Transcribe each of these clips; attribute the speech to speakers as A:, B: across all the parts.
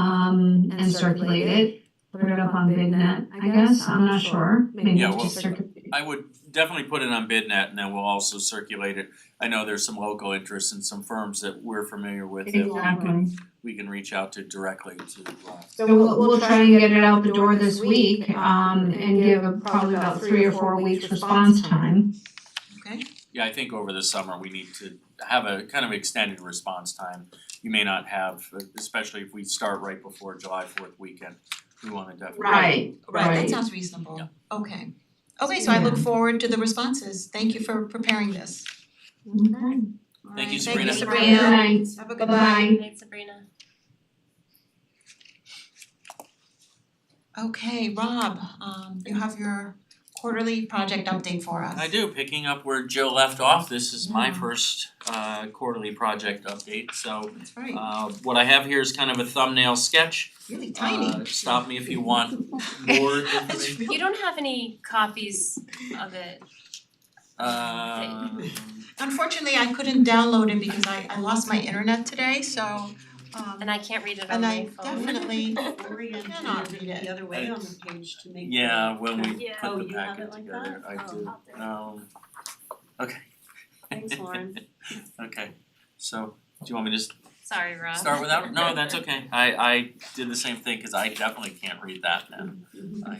A: um, and circulate it, put it up on VidNet, I guess, I'm not sure, maybe
B: Yeah, well-
A: just circulate.
B: I would definitely put it on BidNet and then we'll also circulate it. I know there's some local interest and some firms that we're familiar with
C: Mm-hmm.
B: that we can,
A: Exactly,
B: we can reach out to directly to uh
A: so we'll we'll try and get it out the door this week, um and give a- probably about three or four weeks response time.
B: yeah, I think over the summer, we need to have a kind of extended response time. You may not have, especially if we start right before July fourth weekend, we wanna definitely.
A: Right,
C: Right,
A: Right.
C: that sounds reasonable.
B: Yeah.
C: Okay. Okay, so I look
A: Yeah.
C: forward to the responses. Thank you for preparing this.
A: Okay.
C: All
B: Thank you,
C: right, Thank you,
B: Sabrina.
C: Sabrina.
A: Good night.
C: Have a good night.
A: Bye-bye.
D: Thanks, Sabrina.
C: Okay, Rob, um you have your quarterly project update for us.
B: I do, picking up where Joe left off, this is my
C: Yeah.
B: first uh quarterly project update, so
C: That's right,
B: uh what I have here is kind of a thumbnail sketch.
C: really tiny.
B: Uh, stop me if you want more information.
C: It's real-
D: You don't have any copies of it.
B: Um,
C: Unfortunately, I couldn't download it because I I lost my internet today, so um
D: And I can't read it on
C: and I
D: my phone.
C: definitely
E: Orient
C: I cannot
E: it
C: read it.
E: the other way on the page to make.
B: yeah, when we
D: Yeah.
E: Oh,
B: put the
E: you have
B: packet
E: it like
B: together, I do.
E: Oh, I'll do it.
B: Um, okay.
E: Thanks, Lauren.
B: Okay, so do you want me to s-
D: Sorry, Rob.
B: start without, no, that's okay, I I did the same thing, cause I definitely can't read that now.
E: Mm-hmm.
B: I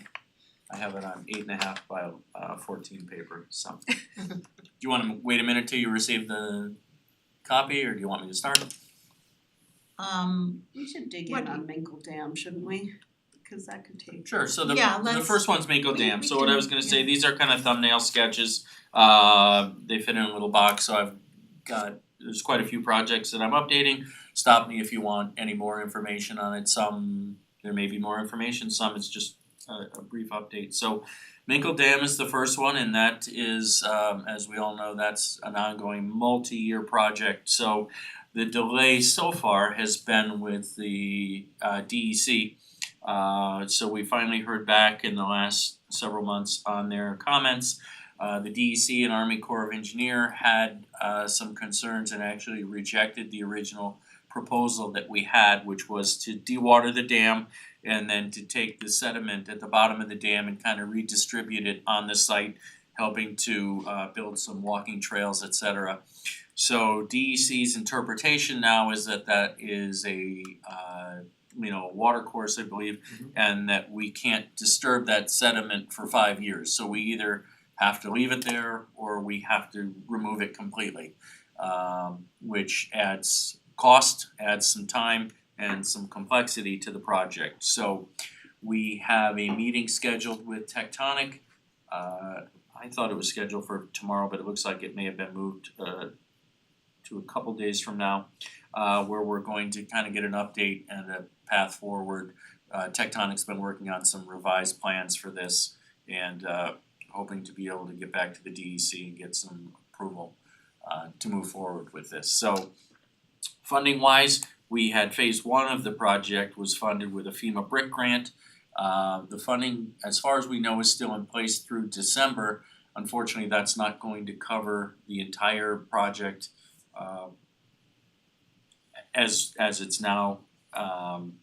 B: I have it on eight and a half by uh fourteen paper, so. Do you wanna wait a minute till you receive the copy, or do you want me to start?
C: um
E: We should dig
C: What
E: in
C: do
E: on Minkle Dam, shouldn't we? Cause that could take.
B: Sure, so the
C: Yeah,
B: the
C: let's-
B: first one's Mako
C: we-
B: Dam,
C: we
B: so what I
C: can-
B: was gonna say,
C: yeah.
B: these are kind of thumbnail sketches. Uh they fit in a little box, so I've got, there's quite a few projects that I'm updating. Stop me if you want any more information on it, some there may be more information, some it's just a a brief update. So Minkle Dam is the first one and that is um as we all know, that's an ongoing multi-year project. So the delay so far has been with the uh DEC. Uh so we finally heard back in the last several months on their comments. Uh the DEC and Army Corps of Engineer had uh some concerns and actually rejected the original proposal that we had, which was to dewater the dam and then to take the sediment at the bottom of the dam and kind of redistribute it on the site, helping to uh build some walking trails, et cetera. So DEC's interpretation now is that that is a uh you know, water course, I believe, and that we can't disturb that sediment for five years. So we either have to leave it there or we have to remove it completely. Um, which adds cost, adds some time and some complexity to the project. So we have a meeting scheduled with Tectonic. Uh, I thought it was scheduled for tomorrow, but it looks like it may have been moved uh to a couple days from now uh where we're going to kind of get an update and a path forward. Uh Tectonic's been working on some revised plans for this and uh hoping to be able to get back to the DEC and get some approval uh to move forward with this. So funding wise, we had phase one of the project was funded with a FEMA brick grant. Uh the funding, as far as we know, is still in place through December. Unfortunately, that's not going to cover the entire project uh as as it's now um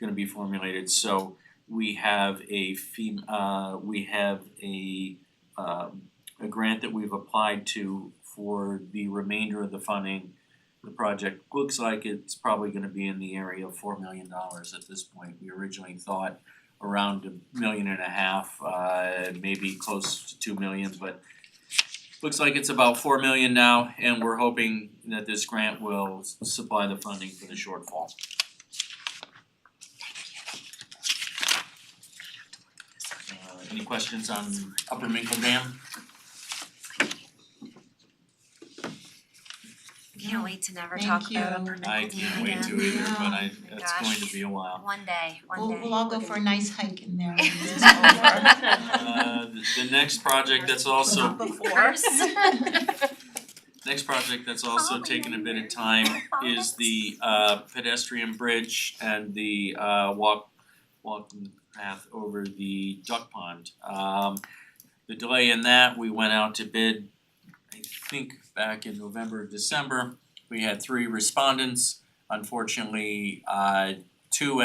B: gonna be formulated, so we have a FEMA, uh we have a um a grant that we've applied to for the remainder of the funding. The project looks like it's probably gonna be in the area of four million dollars at this point, we originally thought around a million and a half, uh maybe close to two million, but Looks like it's about four million now, and we're hoping that this grant will s- supply the funding for the shortfall. Uh, any questions on Upper Minkle Dam?
D: Can't wait to never
C: Thank
D: talk about
C: you.
D: Upper Middle
B: I can't wait to
D: Michigan.
B: either, but I,
C: Yeah.
B: it's going to be a while.
D: One day, one
C: We'll
D: day.
C: we'll all go for a nice hike in there when this is over.
B: Uh, the, the next project that's also,
C: Before.
D: First.
B: next project that's also taken a bit of time is the uh pedestrian bridge and the uh walk walking path over the duck pond. Um the delay in that, we went out to bid, I think back in November, December. We had three respondents, unfortunately, uh two